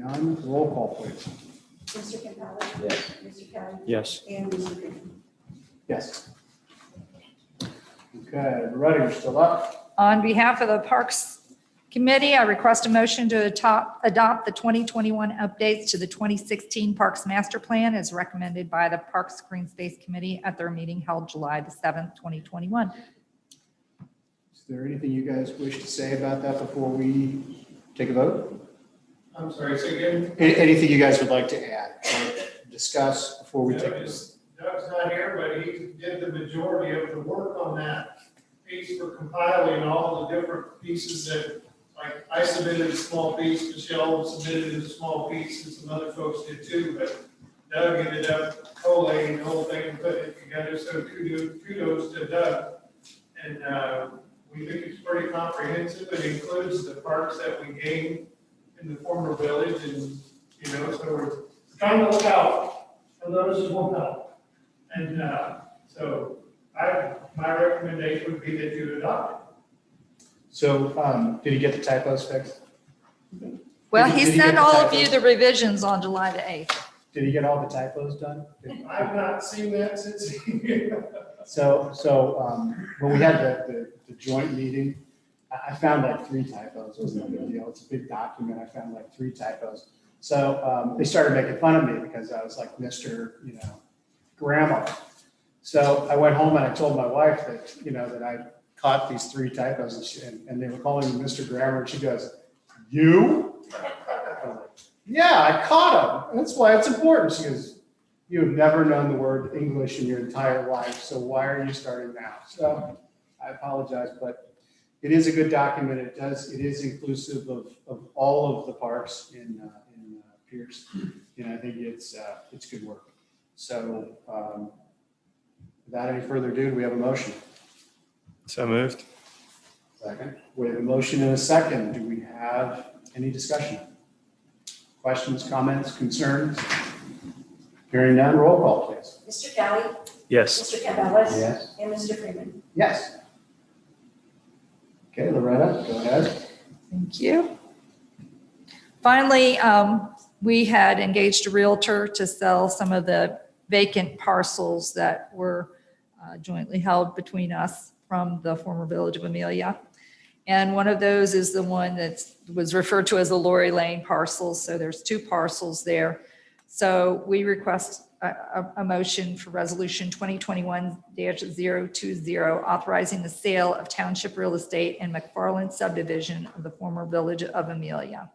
none. Roll call, please. Mr. Campbell. Yes. Mr. Kelly. Yes. And Mr. Green. Yes. Okay, Loretta, you're still up. On behalf of the Parks Committee, I request a motion to atop- adopt the 2021 updates to the 2016 Parks Master Plan as recommended by the Parks Green Space Committee at their meeting held July the 7th, 2021. Is there anything you guys wish to say about that before we take a vote? I'm sorry, say again? A- Anything you guys would like to add or discuss before we take this? Doug's Doug's not here, but he did the majority of the work on that piece for compiling all the different pieces that, like, I submitted a small piece, Michelle submitted a small piece, and some other folks did too, but Doug ended up collating the whole thing and putting it together, so kudos, kudos to Doug. And, uh, we think it's pretty comprehensive, it includes the parks that we gained in the former village, and, you know, so we're trying to look out and those as well. And uh, so I, my recommendation would be that you adopt. So, um, did he get the typos fixed? Well, Did you- he did you get sent the all of typos? you the revisions on July the 8th. Did he get all the typos done? it. Did- I've not seen that since. So, so, um, when we had the, the, the joint meeting, I, I found like three typos, it was no big deal, it's a big document, I found like three typos. So, um, they started making fun of me because I was like Mr., you know, grandma. So I went home and I told my wife that, you know, that I caught these three typos and she, and, and they were calling me Mr. Grammar, and she goes, you? I was like, Yeah, I caught them, that's why it's important, she goes, you have never known the word English in your entire life, so why are you starting now? So I apologize, but it is a good document. It does, it is inclusive of, of all of the parks in, uh, in uh, Pierce. And I think it's, uh, it's good work. So, um, without any further ado, do we have a motion? So moved. Second. We have a motion and a second. Do we have any discussion? Questions, comments, concerns? Hearing none, roll call please. Mr. Kelly. Yes. Mr. Campbell. Yes. And Mr. Freeman. Yes. Okay, Loretta, go ahead. Thank you. Finally, um, we had engaged a Realtor to sell some of the vacant parcels that were uh, jointly held between us from the former Village of Amelia. And one of those is the one that was referred to as the Lori Lane parcel. So there's two parcels there. So we request a, a- a motion for Resolution 2021-020, authorizing the sale of township real estate in McFarland subdivision of the former Village of Amelia.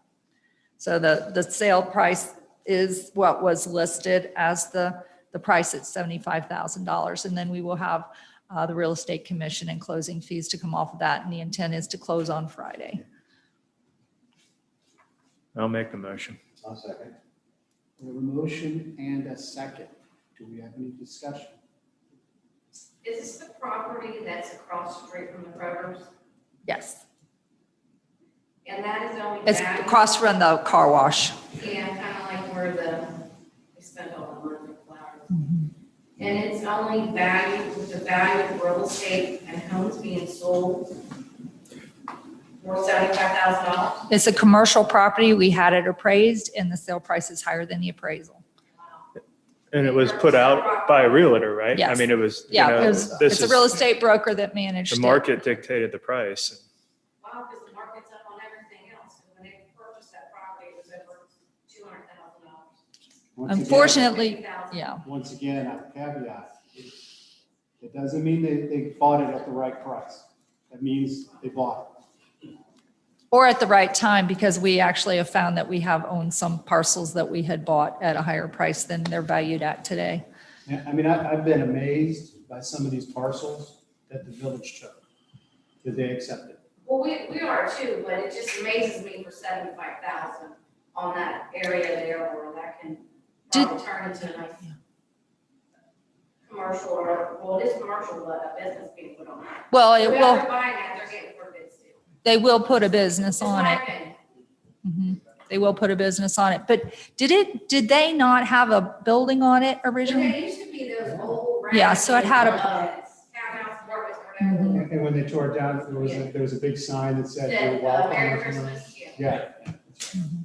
So the, the sale price is what was listed as the, the price at $75,000. And then we will have uh, the real estate commission and closing fees to come off of that. And the intent is to close on Friday. I'll make the motion. I'll second. We have a motion and a second. Do we have any discussion? Is this the property that's across the street from the Kroger's? Yes, And that is only. it's valued- across from the car wash. Yeah, kind of like where the, they spend all the money on flowers. And it's only valued with the value of real estate and homes being sold for seventy-five thousand dollars. It's a commercial property. We had it appraised and the sale price is higher than the appraisal. And it was put out by a realtor, right? I Yes. mean, it was, you Yeah, it know, was- this it's a real is, estate broker that managed the it. market dictated the price. Wow, because the market's up on everything else. And when they purchased that property, it was over two hundred thousand dollars. Once again- Unfortunately, yeah, Once again, I caveat, it- it doesn't mean they, they bought it at the right price. That means they bought it. or at the right time because we actually have found that we have owned some parcels that we had bought at a higher price than they're valued at today. Yeah, I mean, I, I've been amazed by some of these parcels that the village took, that they accepted. Well, we, we are too, but it just amazes me for seventy-five thousand on that area there where that can Did- probably turn into a nice commercial or, well, it is commercial, but a business being put on that. Well, it Whoever will, buying that, they're getting for bids too. they will put a business Just on my it. opinion. Mhm. They will put a business on it. But did it, did they not have a building on it But originally? there used to be those old. Yeah, so it had a- racks, uh, Townhouse apartments, whatever. And and when Mm-hmm. they tore it down, there was, a- there was a big sign that said, Said, you're uh, Merry welcome. Christmas, yeah. Yeah. that's right. Mhm.